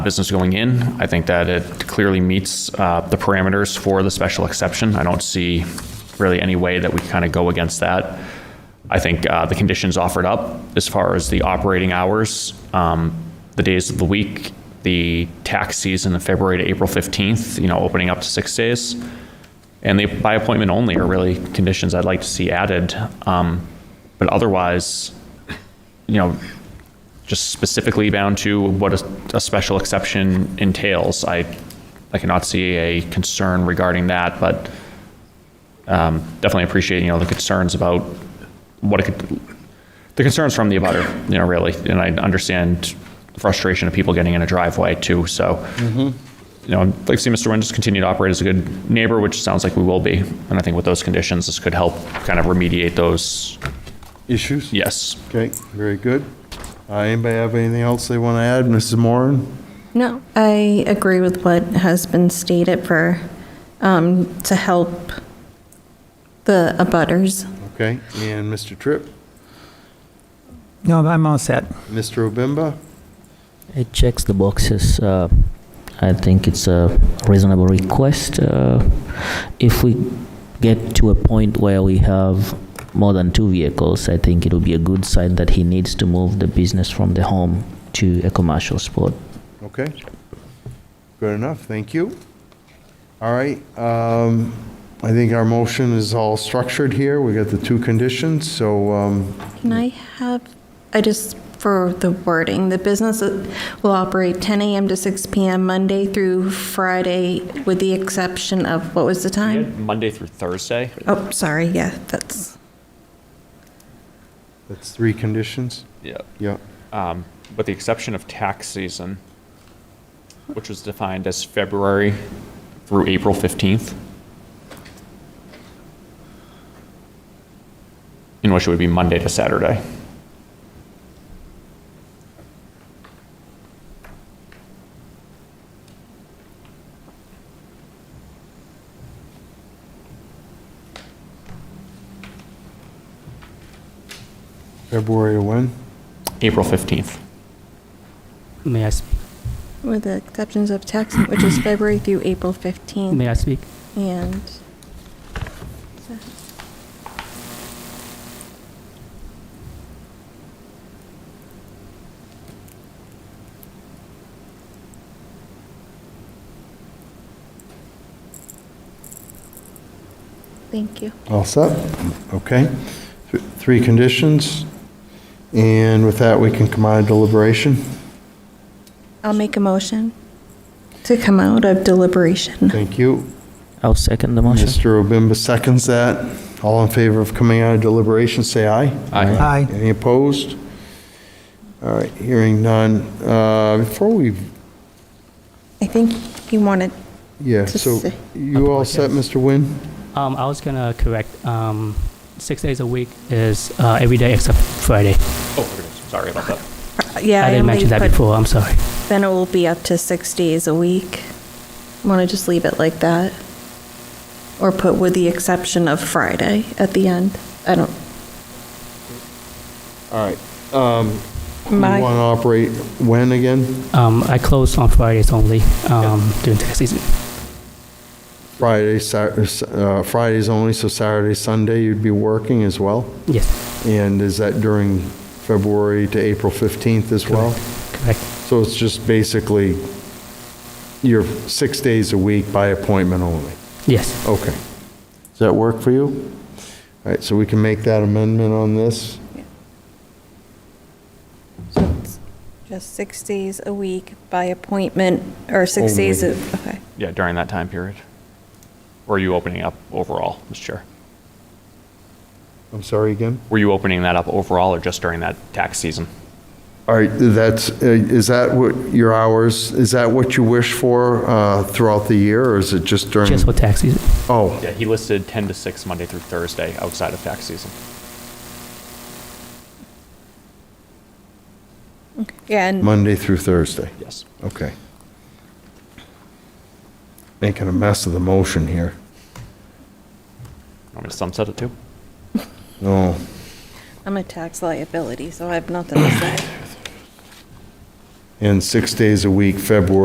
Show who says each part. Speaker 1: business going in. I think that it clearly meets uh, the parameters for the special exception. I don't see really any way that we kind of go against that. I think uh, the conditions offered up, as far as the operating hours, um, the days of the week, the tax season of February to April 15th, you know, opening up to six days, and the by appointment only are really conditions I'd like to see added. Um, But otherwise, you know, just specifically bound to what a, a special exception entails. I, I cannot see a concern regarding that, but um, definitely appreciate, you know, the concerns about what it could, the concerns from the abutter, you know, really. And I understand frustration of people getting in a driveway too, so. You know, I'd like to see Mr. Nguyen just continue to operate as a good neighbor, which sounds like we will be. And I think with those conditions, this could help kind of remediate those,
Speaker 2: Issues?
Speaker 1: yes.
Speaker 2: Okay, very good. Uh, Anybody have anything else they want to add? Mrs. Moran?
Speaker 3: No, I agree with what has been stated for, um, to help the abutters.
Speaker 2: Okay, and Mr. Tripp?
Speaker 4: No, I'm all set.
Speaker 2: Mr. Obimba?
Speaker 5: It checks the boxes. Uh, I think it's a reasonable request. Uh, if we get to a point where we have more than two vehicles, I think it will be a good sign that he needs to move the business from the home to a commercial spot.
Speaker 2: Okay. Good enough, thank you. All right, um, I think our motion is all structured here. We got the two conditions, so, um,
Speaker 3: Can I have, I just, for the wording, the business will operate 10 AM to 6 PM Monday through Friday with the exception of, what was the time?
Speaker 1: Monday through Thursday.
Speaker 3: Oh, sorry, yeah, that's,
Speaker 2: that's three conditions?
Speaker 1: Yeah.
Speaker 2: Yeah,
Speaker 1: um, with the exception of tax season, which was defined as February through April 15th, in which it would be Monday to Saturday.
Speaker 2: February or when?
Speaker 1: April 15th.
Speaker 6: May I speak?
Speaker 3: with the exceptions of tax, which is February through April 15th.
Speaker 6: May I speak?
Speaker 3: And thank you.
Speaker 2: All set? Okay. Th- Three conditions, and with that, we can come out of deliberation.
Speaker 3: I'll make a motion to come out of deliberation.
Speaker 2: Thank you.
Speaker 5: I'll second the motion.
Speaker 2: Mr. Obimba seconds that. All in favor of coming out of deliberation, say aye.
Speaker 1: Aye.
Speaker 4: Aye.
Speaker 2: Any opposed? All right, hearing none. Uh, Before we,
Speaker 3: I think you wanted,
Speaker 2: yeah,
Speaker 3: To
Speaker 2: so
Speaker 3: say-
Speaker 2: you all set, Mr. Nguyen?
Speaker 6: Um, I was gonna correct, um, six days a week is, uh, every day except Friday.
Speaker 1: Oh, there it is. sorry about that.
Speaker 3: yeah.
Speaker 6: I didn't mention that before, I'm sorry.
Speaker 3: Then it will be up to six days a week. Want to just leave it like that? Or put with the exception of Friday at the end? I don't,
Speaker 2: All right. um, You want to
Speaker 3: my,
Speaker 2: operate when again?
Speaker 6: Um, I close on Fridays only, um, during tax season.
Speaker 2: Friday, Sat- uh, Fridays only, so Saturday, Sunday, you'd be working as well?
Speaker 6: Yes,
Speaker 2: And is that during February to April 15th as well?
Speaker 6: correct.
Speaker 2: So it's just basically, you're six days a week by appointment only?
Speaker 6: Yes,
Speaker 2: Okay. Does that work for you? All right, so we can make that amendment on this?
Speaker 3: so it's just six days a week by appointment, or six
Speaker 2: Only.
Speaker 3: days, of- okay.
Speaker 1: Yeah, during that time period. Or are you opening up overall, Mr. Chair?
Speaker 2: I'm sorry, again?
Speaker 1: Were you opening that up overall or just during that tax season?
Speaker 2: All right, that's, uh, is that what your hours, is that what you wish for uh, throughout the year, or is it just during?
Speaker 6: just for tax season.
Speaker 2: Oh,
Speaker 1: Yeah, he listed 10 to 6 Monday through Thursday outside of tax season.
Speaker 3: Yeah, and
Speaker 2: Monday through Thursday?
Speaker 1: Yes.
Speaker 2: Okay. Making a mess of the motion here.
Speaker 1: Want me to sunset it too?
Speaker 2: No.
Speaker 3: I'm a tax liability, so I have nothing to say.
Speaker 2: and six days a week, February